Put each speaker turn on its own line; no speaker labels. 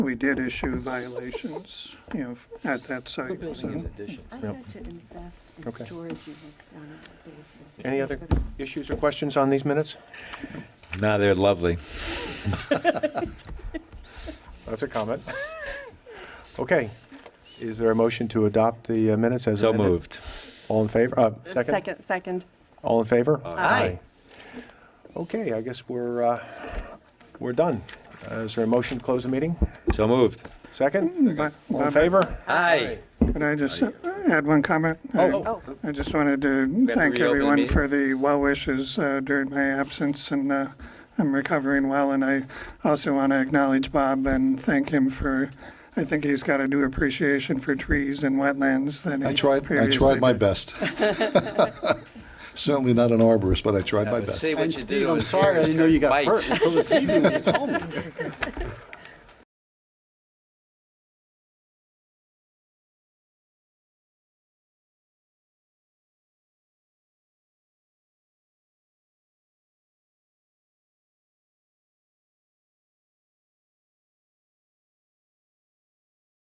we did issue violations, you know, at that
We're
site.
building
So
in addition.
I
Yep.
had to invest in
Okay.
storage units down in the basement.
Any other
Somebody-
issues or questions on these minutes?
No, they're lovely.
That's a comment. Okay, is there a motion to adopt the uh, minutes as
So
amended?
moved.
All in favor, uh, second?
Second, second.
All in favor?
Aye.
Okay, I guess we're, uh, we're done. Uh, Is there a motion to close the meeting?
So moved.
Second?
but-
All in
but-
favor?
Aye.
Could I just add one comment?
Oh.
Oh,
I just wanted to
to reopen
thank
the
everyone
meeting.
for the well wishes uh, during my absence, and uh, I'm recovering well. And I also want to acknowledge Bob and thank him for, I think he's got a new appreciation for trees and wetlands than
I
he
tried, I
previously
tried my
did.
best. Certainly not an arborist, but I tried my best.
Say what
And
you do.
Steve, I'm
is
sorry, I
yours,
didn't know you got
bites.
hurt until this evening when you told me.